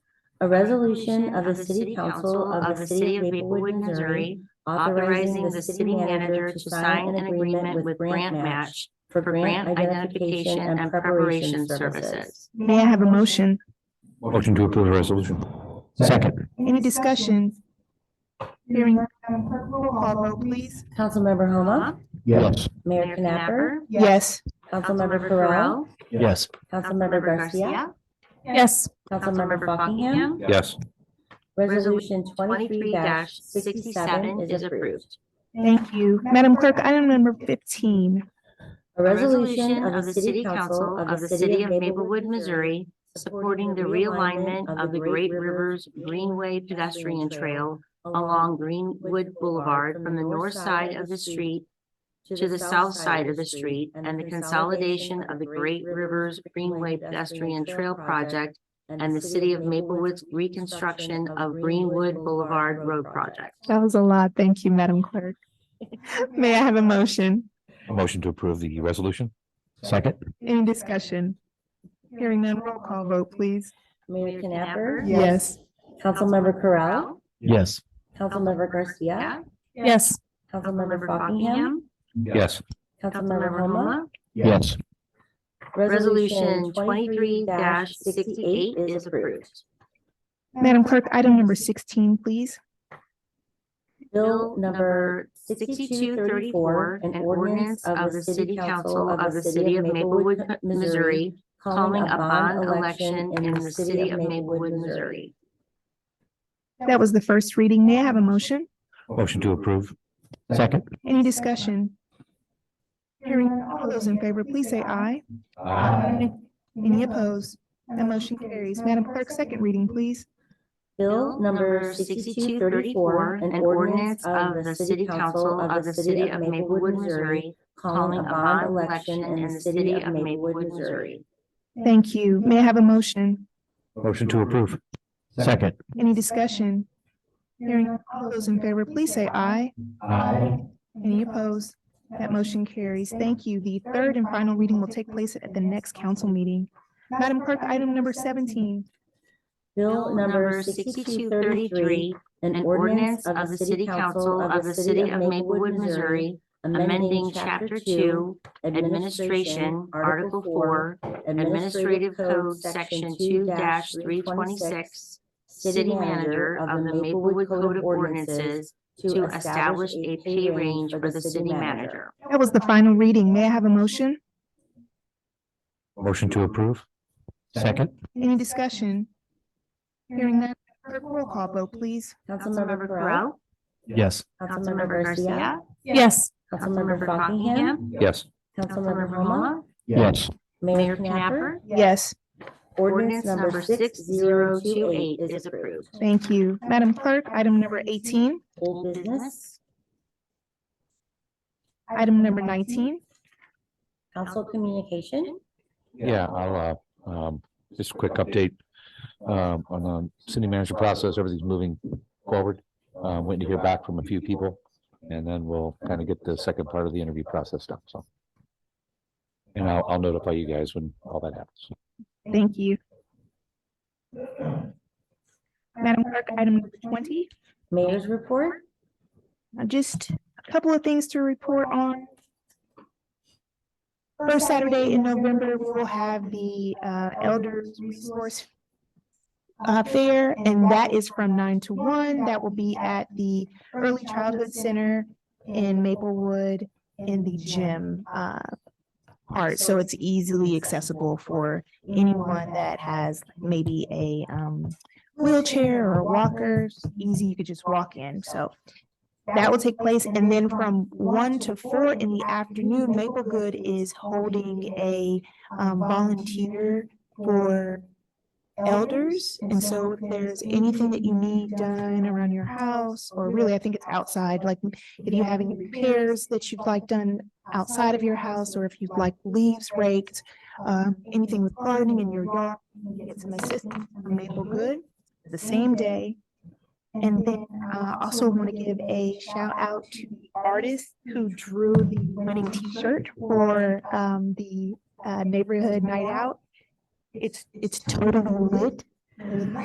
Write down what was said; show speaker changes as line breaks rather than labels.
A resolution of the City Council of the City of Maplewood, Missouri,
authorizing the city manager to sign an agreement with Grant Match
for
for grant identification and preparation services.
May I have a motion?
Motion to approve the resolution. Second.
Any discussion? Hearing. none, clerk, Roll call vote, please.
Councilmember Homa,
Yes.
Mayor Knapper,
Yes.
Councilmember Farrell,
Yes.
Councilmember Garcia,
Yes.
Councilmember Buckingham.
Yes.
Resolution twenty-three
Twenty-three
sixty-seven is approved.
Thank you. Madam Clerk, item number fifteen.
A resolution of the City Council of the City of Maplewood, Missouri,
supporting the realignment of the Great Rivers Greenway Pedestrian Trail along Greenwood Boulevard from the north side of the street to the south side of the street and the consolidation of the Great Rivers Greenway Pedestrian Trail Project and the City of Maplewood's reconstruction of Greenwood Boulevard Road Project.
That was a lot. Thank you, Madam Clerk. May I have a motion?
Motion to approve the resolution. Second.
Any discussion? Hearing none, roll call vote, please.
Mayor Knapper,
Yes.
Yes.
Councilmember Correll,
Yes.
Councilmember Garcia,
Yes.
Councilmember Buckingham,
Yes.
Councilmember Homa.
Yes.
Resolution twenty-three sixty-eight is approved.
Madam Clerk, item number sixteen, please.
Bill number sixty-two thirty-four, an ordinance of the City Council of the City of Maplewood, Missouri,
calling a bond election in the City of Maplewood, Missouri.
That was the first reading. May I have a motion?
Motion to approve. Second.
Any discussion? Hearing none, all those in favor, please say aye.
Uh,
Any opposed? That motion carries. Madam Clerk, second reading, please.
Bill number sixty-two thirty-four, an ordinance of the City Council of the City of Maplewood, Missouri, calling a bond election in the City of Maplewood, Missouri.
Thank you. May I have a motion?
Motion to approve. Second.
Any discussion? Hearing none, all those in favor, please say aye. Any opposed? That motion carries. Thank you. The third and final reading will take place at the next council meeting. Madam Clerk, item number seventeen.
Bill number sixty-two thirty-three, an ordinance of the City Council of the City of Maplewood, Missouri,
amending Chapter Two, Administration, Article Four, Administrative Code, Section two three twenty-six, City Manager of the Maplewood Code of Ordinances to establish a pay range for the city manager.
That was the final reading. May I have a motion?
Motion to approve. Second.
Any discussion? Hearing none, clerk, roll call vote, please.
Councilmember Correll,
Yes.
Councilmember Garcia,
Yes.
Councilmember Buckingham,
Yes.
Councilmember Homa,
Yes.
Mayor Knapper.
Yes,
Ordinance number six zero two eight is approved.
thank you. Madam Clerk, item number eighteen,
Old business,
item number nineteen.
council communication.
Yeah, I'll, uh, um, just a quick update, um, on, um, city manager process, everything's moving forward. Um, waiting to hear back from a few people, and then we'll kind of get the second part of the interview process done, so. And I'll, I'll notify you guys when all that happens.
Thank you. Madam Clerk, item number twenty,
Mayor's report.
Uh, just a couple of things to report on. First Saturday in November, we will have the uh, Elders Resource uh, Fair, and that is from nine to one. That will be at the Early Childhood Center in Maplewood in the gym uh, part. So it's easily accessible for anyone that has maybe a um, wheelchair or a walker. Easy, you could just walk in. So that will take place, and then from one to four in the afternoon, Maplewood is holding a um, volunteer for elders, and so if there's anything that you need done around your house, or really, I think it's outside, like if you have any repairs that you'd like done outside of your house, or if you'd like leaves raked, um, anything with gardening in your yard, you can get some assistance from Maplewood the same day. And then I also want to give a shout out to the artist who drew the winning T-shirt for um, the uh, neighborhood night out. It's, it's totally lit. with